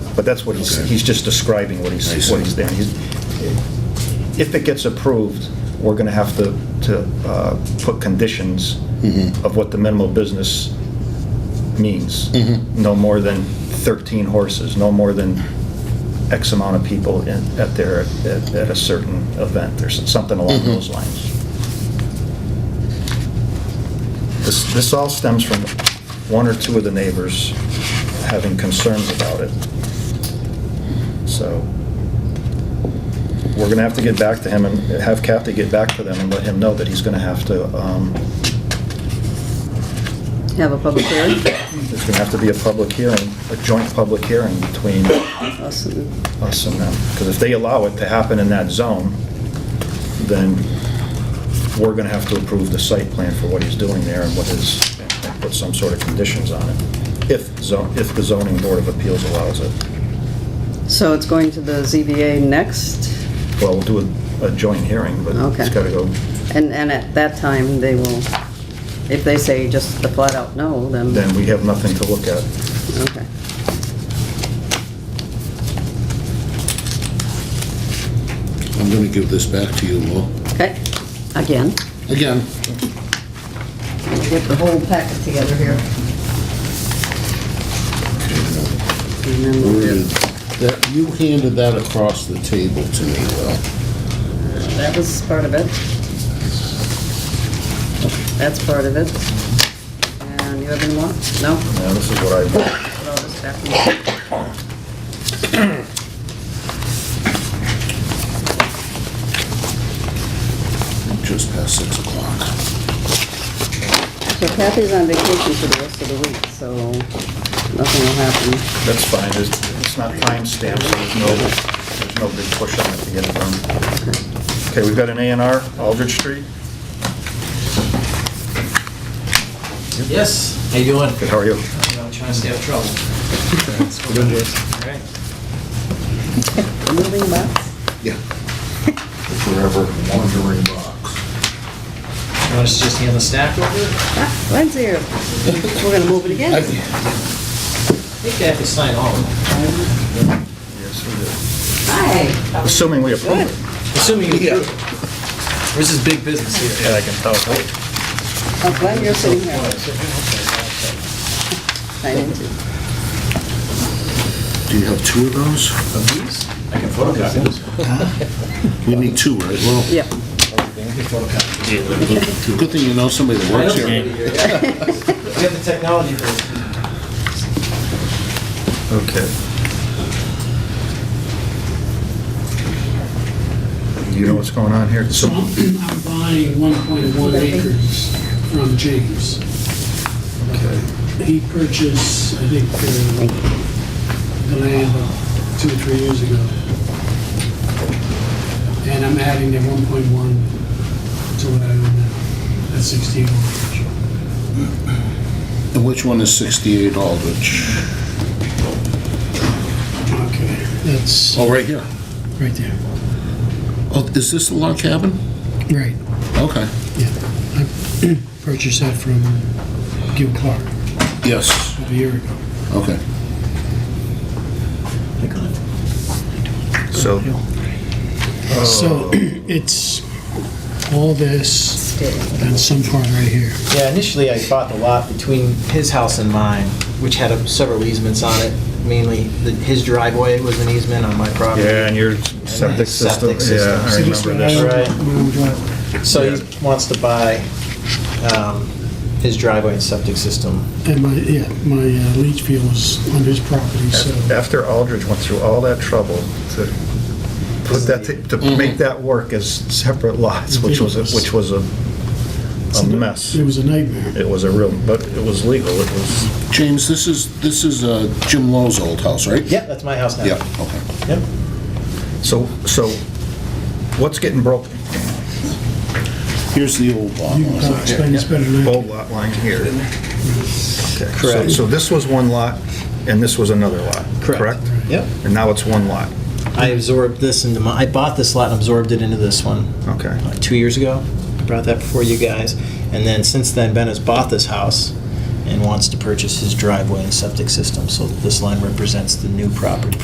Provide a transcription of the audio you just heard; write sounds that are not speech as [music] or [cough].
But that's what he's, Okay. he's just describing what I he's, see. what he's doing. He's- If it gets approved, we're going to have to, to uh, put conditions of what the minimal business means. No more than 13 horses, no more than X amount of people in, at their, at at a certain event, or something along those lines. This, this all stems from one or two of the neighbors having concerns about it. So, we're gonna have to get back to him and have Kathy get back to them and let him know that he's gonna have to, um, Have a public hearing? there's gonna have to be a public hearing, a joint public hearing between Awesome. us and them. Because if they allow it to happen in that zone, then we're gonna have to approve the site plan for what he's doing there and what is, and put some sort of conditions on it, if zone, if the zoning board of appeals allows it. So it's going to the ZBA next, Well, we'll do a, a joint hearing, but it's Okay. gotta go, and, and at that time, they will, if they say just the flat out no, then, then we have nothing to look at. okay. I'm going to give this back to you, Lou. Okay, again, Again, we'll get the whole packet together here. And then we'll worded, do- that you handed that across the table to me, Lou. that was part of it. That's part of it. And you have any more? No? Now, this is what I, Put all this back in. just past 6 o'clock. So Kathy's on vacation for the rest of the week, so nothing will happen. that's fine, it's, it's not timestamped, so there's no, there's no big push on it to get it done. Okay, we've got an A and R, Aldridge Street. Yes. How you doing? Good, how are you? You know, trying to stay out of trouble. All right. Moving box? Yeah. Forever wandering box. You want us to just hand the stack over? I Ah, Glenn's here. We're gonna move it again. I- think they have to sign all of them. Yes, we Hi. do. Assuming we approve it. Assuming you approve. This is big business here. Yeah, I can tell. Oh, Glenn, you're sitting here. I did too. Do you have two of those? Of these? I can photocopy this. We need two, right, Lou? Yeah. Good thing you know somebody that works here. We have the technology for this. Okay. You know what's going on here? So, So I'm buying 1.1 acres from James. He purchased, I think, uh, the land two or three years ago. And I'm adding the 1.1 to what I own now. That's 16 acres. And which one is 68 Aldrich? Okay, that's Oh, right here. right there. Oh, is this the log cabin? Right, Okay. yeah. I [clears throat] purchased that from Gil Clark Yes, a year ago. okay. so Oh. So [clears throat] it's all this and some part right here. Yeah, initially I bought the lot between his house and mine, which had several easements on it. Mainly, the- his driveway was an easement on my property. yeah, and your septic Septic system, system. yeah, I So this remember one, this. Right. own driveway. So he wants to buy um, his driveway and septic system. And my, yeah, my uh, leach field was on his [laughs] property, so. After Aldridge went through all that trouble to put that, to to make that work as separate lots, which was, a- which was a a mess. It was a nightmare. It was a real, but it was legal, it was, James, this is, this is uh, Jim Lowe's old house, right? Yeah, that's my house now. Yeah, okay. Yep. so, so what's getting broken? Here's the old lot. You can probably explain this better than I Old lot line here. Okay, so- Correct. So this was one lot, and this was another lot, correct? Yep. And now it's one lot, I absorbed this into my, I bought this lot and absorbed it into this one. okay. like two years ago. I brought that before you guys. And then since then, Ben has bought this house and wants to purchase his driveway and septic system. So this line represents the new property.